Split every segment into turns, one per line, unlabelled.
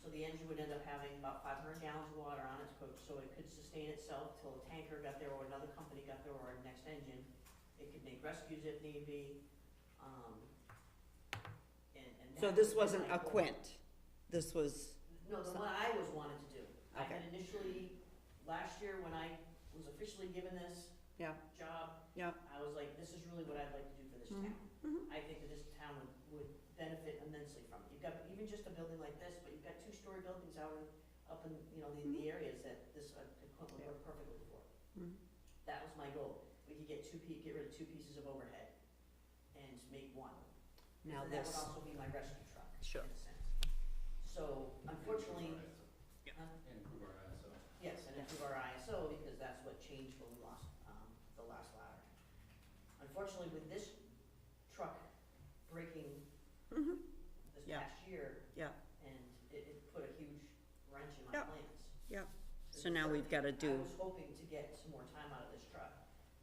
So the engine would end up having about five hundred gallons of water on its coach, so it could sustain itself till a tanker got there or another company got there or a next engine. It could make rescues if need be, um, and, and.
So
that
this
would
wasn't a
like what-
quint, this was,
No, the one I was wanted to do. I
Okay.
had initially, last year when I was officially given this.
Yeah.
Job.
Yeah.
I was like, this is really what I'd like to do for this
Mhm,
town.
mhm.
I think that this town would, would benefit immensely from it. You've got, even just a building like this, but you've got two-story buildings out in, up in, you know, the,
Mm-hmm.
the areas that this uh, equipment would work perfectly for.
Mhm.
That was my goal. We could get two pe, get rid of two pieces of overhead and make one.
now
And
this,
That would also be my rescue truck,
Sure.
in a sense. So unfortunately,
And improve our uh, ISO.
Yes, and improve our ISO, because that's what changed when we lost, um, the last ladder. Unfortunately, with this truck breaking
Mhm.
this
Yeah.
past year.
Yeah.
And it, it put a huge wrench in my
Yeah.
plans.
Yeah. So now we've gotta
I
do-
was hoping to get some more time out of this truck.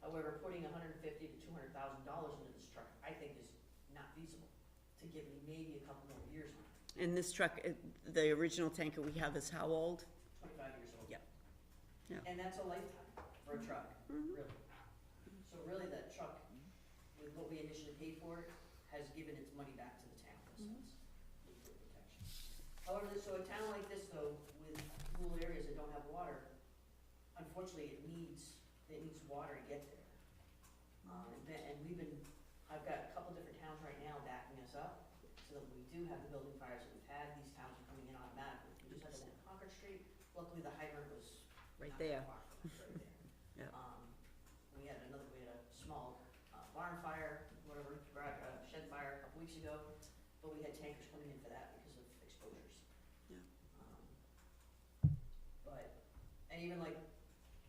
However, putting hundred and fifty to two hundred thousand dollars into this truck, I think is not feasible, to give me maybe a couple more years on it,
and this truck, it- the original tanker we have is how old?
twenty-five years old.
Yeah. Yeah.
And that's a lifetime for a truck.
Mhm.
Really. So really, that truck, with what we initially paid for it, has given its money back to the town, in a sense. with the protection. However, this- so a town like this, though, with rural areas that don't have water, unfortunately, it needs, it needs water to get there. Um, and that- and we've been, I've got a couple different towns right now backing us up, so that we do have the building fires that we've had, these towns are coming in automatically. We just had the one on Concord Street, luckily the hydrant was
Right
not that
there,
far from us, right there.
Yeah.
Um, we had another, we had a small uh, barn fire, whatever, garage, uh, shed fire a couple weeks ago, but we had tankers coming in for that because of exposures.
Yeah.
Um, But, and even like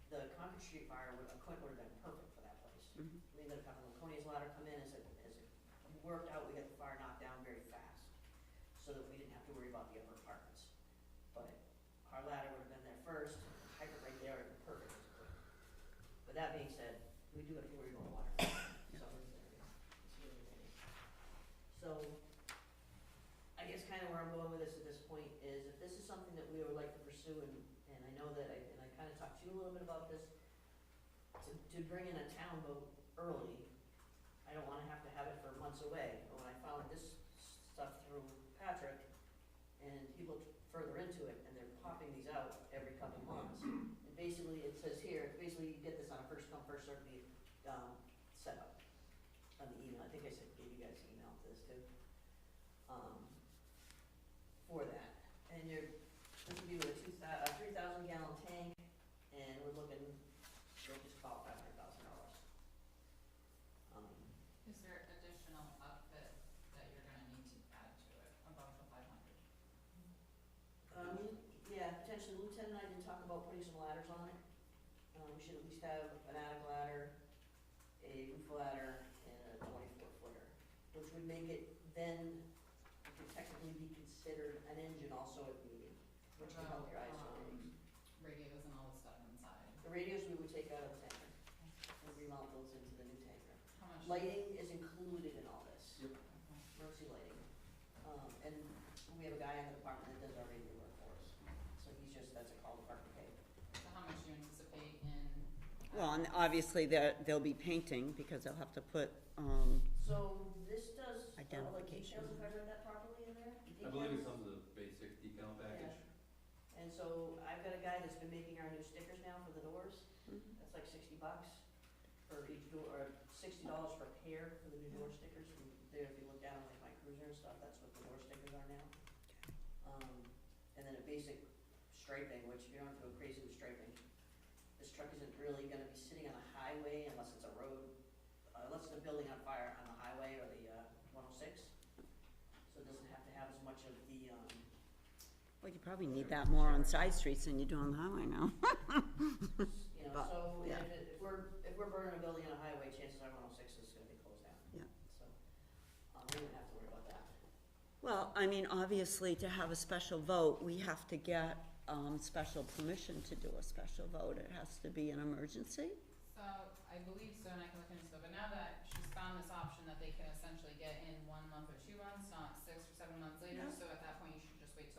the Concord Street fire, would- a quit would have been perfect for that place.
Mhm.
We ended up having Laconia's ladder come in as it, as it worked out, we got the fire knocked down very fast, so that we didn't have to worry about the upper apartments. But our ladder would have been there first, hydrant right there, and perfect. But that being said, we do have to worry about water, so it's there, it's really there. So, I guess kind of where I'm going with this at this point is, if this is something that we would like to pursue, and, and I know that I, and I kind of talked to you a little bit about this, to, to bring in a town vote early, I don't wanna have to have it for months away, but when I found this stuff through Patrick, and he looked further into it, and they're popping these out every couple months. And basically, it says here, basically you get this on a first come, first served be- um, setup on the email, I think I said, gave you guys an email to this too. Um, for that, and you're, this would be with a two thou- a three thousand gallon tank, and we're looking, we'll just call five hundred thousand dollars. Um,
Is there additional outfit that you're gonna need to add to it above the five hundred?
Um, yeah, potentially Lieutenant and I did talk about putting some ladders on it. Um, we should at least have an attic ladder, a roof ladder, and a twenty-four footer, which would make it then could technically be considered an engine also at meeting, which can help your ISO
Um,
ratings.
Radios and all the stuff inside.
The radios we would take out of the tanker and remount those into the new tanker.
How much?
Lighting is included in all this,
Yep.
Okay.
emergency lighting. Um, and we have a guy in the department that does our radio work for us, so he's just, that's a call department pay.
So how much do you anticipate in?
Well, and
um,
obviously they're, they'll be painting because they'll have to put, um,
So this does, uh, like
Identification.
details, if I read that properly in there?
I believe it's
Decals?
under the basic decal package.
And so I've got a guy that's been making our new stickers now for the doors,
Mhm.
that's like sixty bucks for each door, or sixty dollars per pair for the new door stickers, and there, if you look down on like my cruiser and stuff, that's what the door stickers are now. Um, and then a basic striping, which you don't have to go crazy with striping. This truck isn't really gonna be sitting on a highway unless it's a road, uh, unless the building on fire on the highway or the, uh, one oh six. So it doesn't have to have as much of the, um,
well, you probably need that more on side streets than you do on the highway now.
You know,
But,
so if,
yeah.
it- if we're, if we're burning a building on a highway, chances are one oh six is gonna be closed down.
Yeah.
So, um, we don't have to worry about that.
Well, I mean, obviously, to have a special vote, we have to get, um, special permission to do a special vote. It has to be an emergency.
So, I believe so, and I can look into it, but now that she's found this option that they can essentially get in one month or two months, not six or seven months later,
Yeah.
so at that